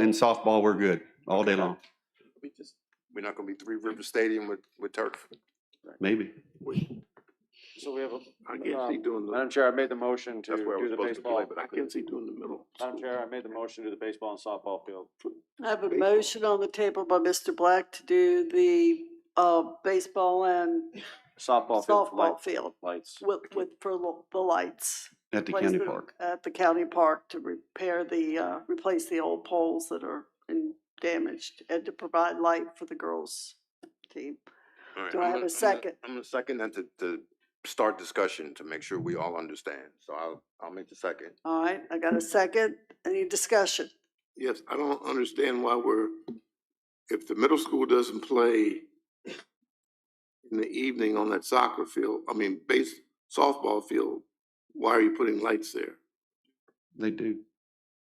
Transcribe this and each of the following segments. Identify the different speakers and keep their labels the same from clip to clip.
Speaker 1: in softball, we're good all day long,
Speaker 2: We just, we're not gonna be Three River Stadium with, with turf.
Speaker 1: maybe.
Speaker 3: So we have a,
Speaker 4: I can't see
Speaker 3: Um,
Speaker 4: doing the,
Speaker 3: Madam Chair, I made the motion to
Speaker 4: that's where I
Speaker 3: do
Speaker 4: was
Speaker 3: the
Speaker 4: supposed to play,
Speaker 3: baseball.
Speaker 4: but I can't see doing the middle.
Speaker 3: Madam Chair, I made the motion to the baseball and softball field.
Speaker 5: I have a
Speaker 4: Baseball.
Speaker 5: motion on the table by Mr. Black to do the, uh, baseball and
Speaker 3: Softball field for
Speaker 5: softball
Speaker 3: light-
Speaker 5: field
Speaker 3: lights.
Speaker 5: with, with, for the- the lights.
Speaker 1: At the
Speaker 5: Place
Speaker 1: county
Speaker 5: the-
Speaker 1: park.
Speaker 5: At the county park to repair the, uh, replace the old poles that are in- damaged and to provide light for the girls' team.
Speaker 2: All right,
Speaker 5: Do I
Speaker 2: I'm
Speaker 5: have a
Speaker 2: gonna- I'm gonna-
Speaker 5: second?
Speaker 2: I'm gonna second that to, to start discussion, to make sure we all understand. So I'll, I'll make the second.
Speaker 5: All right, I got a second. Any discussion?
Speaker 4: Yes, I don't understand why we're, if the middle school doesn't play in the evening on that soccer field, I mean, base, softball field, why are you putting lights there?
Speaker 1: They do.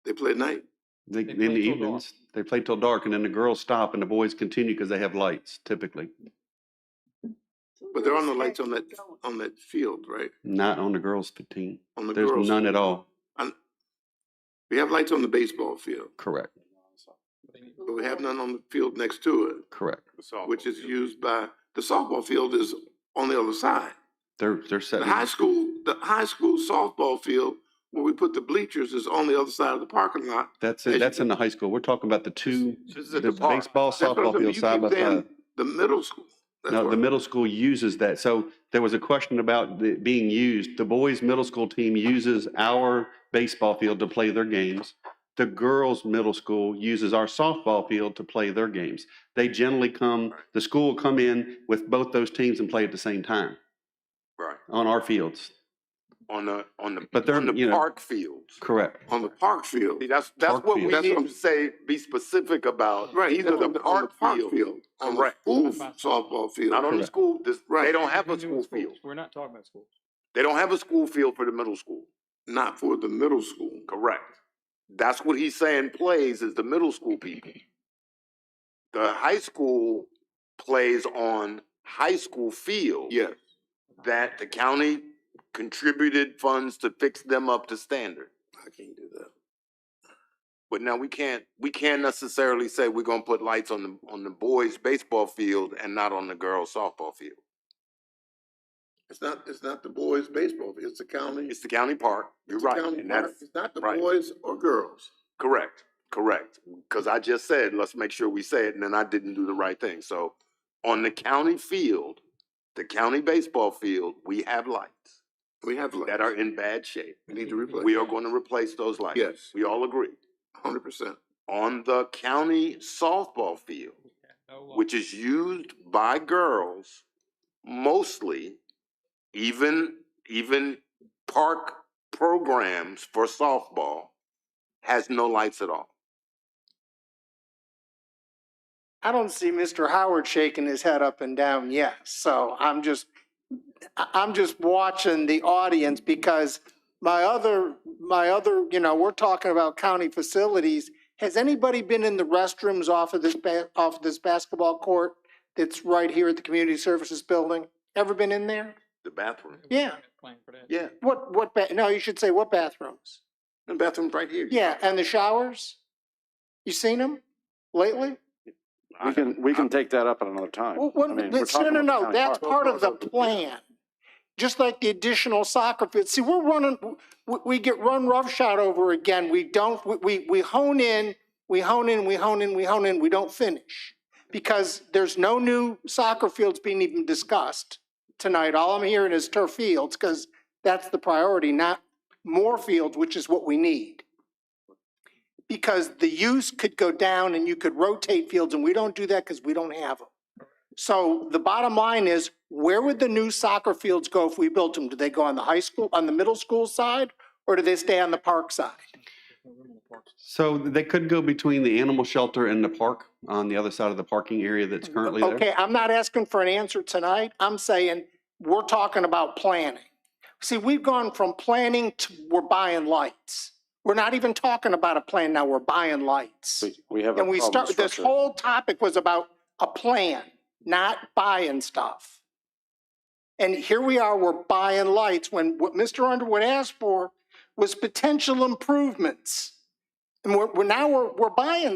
Speaker 4: They play at night.
Speaker 1: They, in the evenings, they play till dark and then the girls stop and the boys continue because they have lights typically,
Speaker 4: But there are no lights on that, on that field, right?
Speaker 1: not on the girls' team.
Speaker 4: On the
Speaker 1: There's
Speaker 4: girls.
Speaker 1: none at all.
Speaker 4: We have lights on the baseball field,
Speaker 1: Correct,
Speaker 4: but we have none on the field next to
Speaker 1: correct.
Speaker 4: it, which is used by, the softball field is on the other side.
Speaker 1: They're, they're set.
Speaker 4: The high school, the high school softball field where we put the bleachers is on the other side of the parking lot.
Speaker 1: That's, it. that's in the high school. We're talking about the two,
Speaker 2: This is
Speaker 1: the
Speaker 2: at the park.
Speaker 1: baseball,
Speaker 4: That's what I'm
Speaker 1: softball
Speaker 4: saying.
Speaker 1: field
Speaker 4: You
Speaker 1: side by
Speaker 4: keep saying
Speaker 1: side.
Speaker 4: The middle school. That's
Speaker 1: No,
Speaker 4: what-
Speaker 1: the middle school uses that. So there was a question about it being used. The boys' middle school team uses our baseball field to play their games. The girls' middle school uses our softball field to play their games. They generally come, the school will come in with both those teams and play at the same time
Speaker 2: Right,
Speaker 1: on our fields.
Speaker 2: on the, on the,
Speaker 1: But they're,
Speaker 2: on
Speaker 1: you
Speaker 2: the
Speaker 1: know-
Speaker 2: park fields.
Speaker 1: Correct.
Speaker 4: On the park field.
Speaker 2: See, that's, that's
Speaker 1: Park
Speaker 2: what we
Speaker 1: field.
Speaker 4: That's
Speaker 2: need
Speaker 4: what I'm-
Speaker 2: to say, be specific about.
Speaker 4: Right,
Speaker 2: These
Speaker 4: he's
Speaker 2: are
Speaker 4: on the, on the park field. On the
Speaker 2: Correct.
Speaker 4: school softball field.
Speaker 2: Not on the
Speaker 1: Correct.
Speaker 2: school, this, they
Speaker 4: Right.
Speaker 2: don't have a school field.
Speaker 6: We're not talking about schools.
Speaker 2: They don't have a school field for the middle school.
Speaker 4: Not for the middle school.
Speaker 2: Correct. That's what he's saying plays is the middle school people. The high school plays on high school field
Speaker 4: Yes,
Speaker 2: that the county contributed funds to fix them up to standard.
Speaker 4: I can't do that.
Speaker 2: But now we can't, we can't necessarily say we're gonna put lights on the, on the boys' baseball field and not on the girls' softball field.
Speaker 4: It's not, it's not the boys baseball. field. It's the county.
Speaker 2: It's the county park, you're
Speaker 4: it's the
Speaker 2: right,
Speaker 4: county
Speaker 2: and
Speaker 4: park.
Speaker 2: that's,
Speaker 4: It's not the
Speaker 2: right.
Speaker 4: boys or girls.
Speaker 2: Correct, correct. Because I just said, let's make sure we say it, and then I didn't do the right thing. So on the county field, the county baseball field, we have lights
Speaker 4: We have lights.
Speaker 2: that are in bad shape.
Speaker 4: We need to replace.
Speaker 2: We are going to replace those lights.
Speaker 4: Yes.
Speaker 2: We all agree.
Speaker 4: Hundred percent.
Speaker 2: On the county softball field, which is used by girls mostly, even, even park programs for softball has no lights at all.
Speaker 7: I don't see Mr. Howard shaking his head up and down yet, so I'm just, I- I'm just watching the audience because my other, my other, you know, we're talking about county facilities. Has anybody been in the restrooms off of this ba- off of this basketball court that's right here at the Community Services Building? Ever been in there?
Speaker 2: The bathroom.
Speaker 7: Yeah.
Speaker 2: Yeah,
Speaker 7: What, what, ba- no, you should say what bathrooms?
Speaker 2: the bathroom's right here.
Speaker 7: Yeah, and the showers? You seen them lately?
Speaker 2: I-
Speaker 3: We can, we can take that up at another time.
Speaker 7: Well,
Speaker 3: I
Speaker 7: what,
Speaker 3: mean, we're
Speaker 7: that's- no,
Speaker 3: talking
Speaker 7: no,
Speaker 3: about
Speaker 7: no,
Speaker 3: the county
Speaker 7: that's
Speaker 3: park.
Speaker 7: part of the plan. Just like the additional soccer field, see, we're running, we, we get run roughshod over again, we don't, we- we, we hone in, we hone in, we hone in, we hone in, we don't finish. Because there's no new soccer fields being even discussed tonight, all I'm hearing is turf fields, because that's the priority, not more fields, which is what we need. Because the use could go down and you could rotate fields, and we don't do that because we don't have them. So the bottom line is, where would the new soccer fields go if we built them? Do they go on the high school, on the middle school side, or do they stay on the park side?
Speaker 1: So they could go between the animal shelter and the park on the other side of the parking area that's currently there.
Speaker 7: Okay, I'm not asking for an answer tonight. I'm saying, we're talking about planning. See, we've gone from planning to, we're buying lights. We're not even talking about a plan now, we're buying lights.
Speaker 3: We- We have a
Speaker 7: And we
Speaker 3: problem
Speaker 7: start, this
Speaker 3: structure.
Speaker 7: whole topic was about a plan, not buying stuff. And here we are, we're buying lights when what Mr. Underwood asked for was potential improvements. And we're, we're now, we're, we're buying